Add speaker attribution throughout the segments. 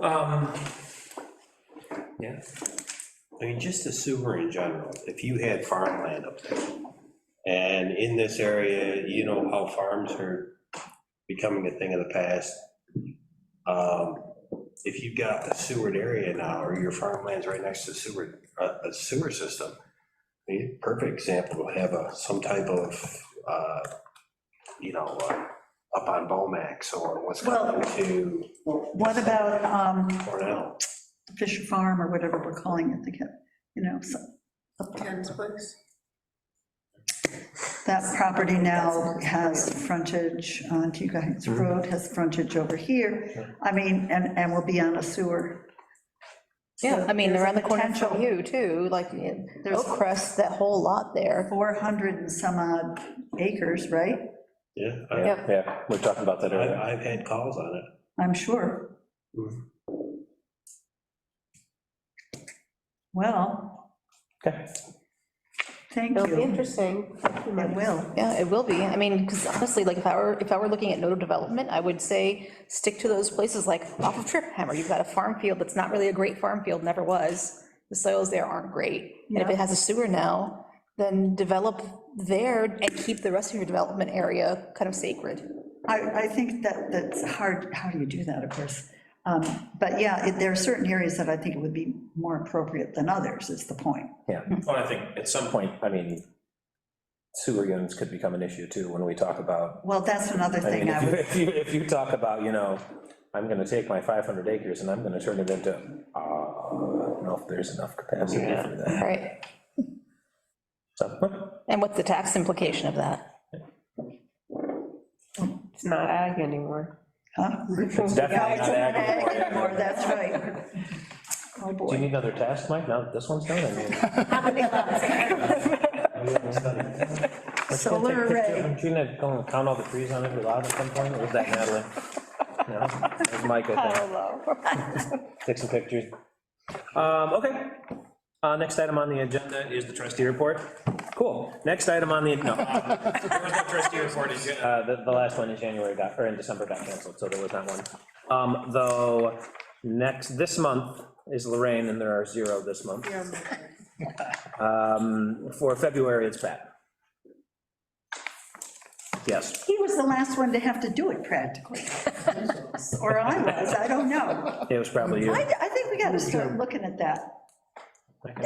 Speaker 1: Um, Yeah,
Speaker 2: I mean, just the sewer in general, if you had farmland up there, and in this area, you know how farms are becoming a thing of the past. Um, If you've got a sewered area now, or your farmland's right next to sewer, a a sewer system, the perfect example, will have a, some type of, uh, you know, uh, up on Bomax, or what's coming to
Speaker 3: What about um,
Speaker 2: Cornell.
Speaker 3: Fisher Farm or whatever we're calling it, the, ca- you know, so-
Speaker 4: Ken's place?
Speaker 3: that property now has frontage on Teague Heights Road, has frontage over here. I mean, and, and will be on a sewer.
Speaker 5: Yeah, I mean,
Speaker 3: there's
Speaker 5: around
Speaker 3: a
Speaker 5: the corner from
Speaker 3: potential-
Speaker 5: you, too, like,
Speaker 3: There's-
Speaker 5: Oak Crest, that whole lot there.
Speaker 3: 400 and some odd acres, right?
Speaker 2: Yeah, I-
Speaker 5: Yep.
Speaker 6: Yeah, we talked about that
Speaker 2: I've,
Speaker 6: earlier.
Speaker 2: I've had calls on it.
Speaker 3: I'm sure.
Speaker 2: Mhm.
Speaker 3: Well,
Speaker 6: Okay.
Speaker 3: thank
Speaker 5: It'll be
Speaker 3: you.
Speaker 5: interesting.
Speaker 3: It will.
Speaker 5: Yeah, it will be. I mean, because honestly, like, if I were, if I were looking at nodal development, I would say, stick to those places, like, off of Trip Hammer, you've got a farm field that's not really a great farm field, never was. The soils there aren't great. And if
Speaker 3: Yeah.
Speaker 5: it has a sewer now, then develop there and keep the rest of your development area kind of sacred.
Speaker 3: I, I think that, that's hard, how do you do that, of course? Um, But yeah, it- there are certain areas that I think it would be more appropriate than others, is the point.
Speaker 6: Well, Oh, I think at some point, I mean, sewer units could become an issue too, when we talk about,
Speaker 3: Well, that's another
Speaker 6: I
Speaker 3: thing
Speaker 6: mean,
Speaker 3: I
Speaker 6: if you,
Speaker 3: would,
Speaker 6: if you, if you talk about, you know, I'm gonna take my 500 acres and I'm gonna turn it into, uh, I don't know if there's enough capacity for that.
Speaker 5: Right.
Speaker 6: So,
Speaker 5: And what's the tax implication of that?
Speaker 4: It's not ag anymore.
Speaker 3: huh?
Speaker 6: It's definitely not ag
Speaker 3: Or,
Speaker 6: anymore.
Speaker 3: that's right. Oh,
Speaker 6: Do you
Speaker 3: boy.
Speaker 6: need another task, Mike? Now that this one's done, I mean.
Speaker 3: Solar array.
Speaker 6: Aren't you gonna go and count all the trees on every lot at some point, or was that Natalie? No, it was Mike, I think. Take some pictures. Um, okay. Uh, next item on the agenda is the trustee report. Cool. Next item on the, no. uh, There was no trustee report in, Jan- uh, the, the last one in January got, or in December got canceled, so there was not one. Um, though, next, this month is Lorraine, and there are zero this month. Um, for February, it's Pat. Yes.
Speaker 3: He was the last one to have to do it practically. Or I was, I don't know.
Speaker 6: It was probably you.
Speaker 3: I, I think we got to start looking at that.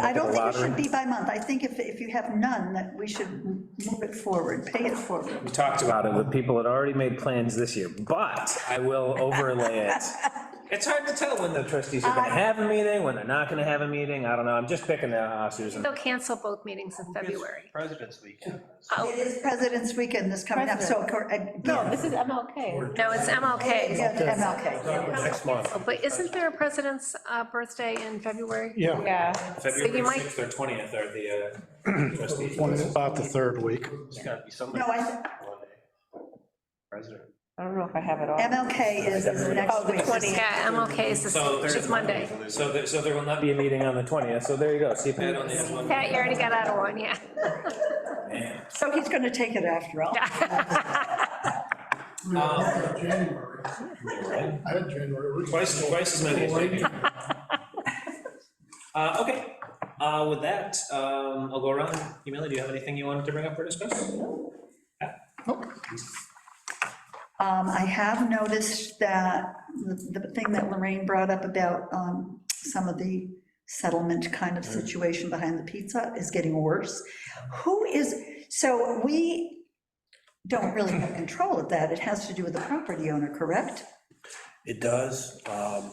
Speaker 3: I don't think it should be by month. I think if, if you have none, that we should move it forward, pay it forward.
Speaker 6: We talked about it, but people had already made plans this year, but I will overlay it. It's hard to tell when the trustees are gonna have a meeting, when they're not gonna have a meeting, I don't know, I'm just picking, uh, Susan.
Speaker 7: They'll cancel both meetings in February.
Speaker 8: President's Weekend.
Speaker 3: It is President's Weekend this coming up, so. uh, No,
Speaker 5: This is MLK.
Speaker 7: No, it's MLK.
Speaker 3: MLK.
Speaker 2: Next month.
Speaker 7: Oh, But isn't there a president's uh, birthday in February?
Speaker 9: Yeah,
Speaker 4: Yeah.
Speaker 7: you
Speaker 1: February
Speaker 7: might-
Speaker 1: 6th or 20th are the uh, trustees.
Speaker 9: one, about the third week.
Speaker 8: There's got to be somebody.
Speaker 3: No, I,
Speaker 8: President.
Speaker 4: I don't know if I have it all.
Speaker 3: MLK is is
Speaker 7: Oh,
Speaker 3: next week.
Speaker 7: Yeah, MLK is this,
Speaker 1: So
Speaker 7: which is Monday.
Speaker 1: So there, so there will not
Speaker 6: Be
Speaker 1: be,
Speaker 6: a meeting on the 20th, so there you go, see if
Speaker 1: Pat only has
Speaker 6: you.
Speaker 1: one.
Speaker 7: Pat, you already got out of one, yeah.
Speaker 3: So he's going to take it after all.
Speaker 10: January. I had January.
Speaker 1: Twice, twice as many as we do. Uh, okay, uh, with that, um, I'll go around. Yumila, do you have anything you wanted to bring up for discussion?
Speaker 3: Um, I have noticed that the the thing that Lorraine brought up about um, some of the settlement kind of situation behind the pizza is getting worse. Who is, so we don't really have control of that. It has to do with the property owner, correct?
Speaker 2: It does, um,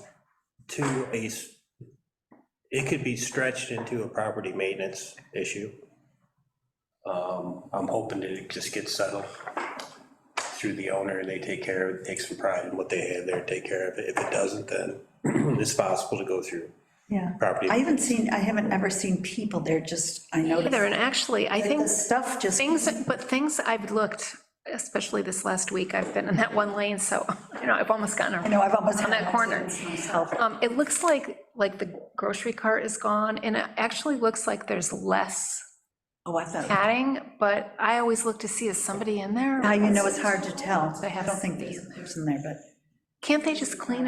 Speaker 2: to a, s- it could be stretched into a property maintenance issue. Um, I'm hoping that it just gets settled through the owner, they take care of it, take some pride in what they have there, take care of it. If it doesn't, then it's possible to go through
Speaker 3: Yeah.
Speaker 2: property.
Speaker 3: I haven't seen, I haven't ever seen people there, just, I noticed.
Speaker 7: Either, and actually, I
Speaker 3: The
Speaker 7: think
Speaker 3: stuff just,
Speaker 7: things, but things I've looked, especially this last week, I've been in that one lane, so, you know, I've almost gotten
Speaker 3: I
Speaker 7: around.
Speaker 3: know, I've almost.
Speaker 7: On
Speaker 3: had
Speaker 7: that corner.
Speaker 3: accidents myself.
Speaker 7: Um, It looks like, like the grocery cart is gone, and it actually looks like there's less
Speaker 3: Oh, I thought,
Speaker 7: padding, but I always look to see, is somebody in there?
Speaker 3: now you know it's hard to tell.
Speaker 7: They
Speaker 3: I
Speaker 7: have
Speaker 3: don't think
Speaker 7: something
Speaker 3: there's
Speaker 7: in
Speaker 3: a
Speaker 7: there.
Speaker 3: person there, but.
Speaker 7: Can't they just clean it?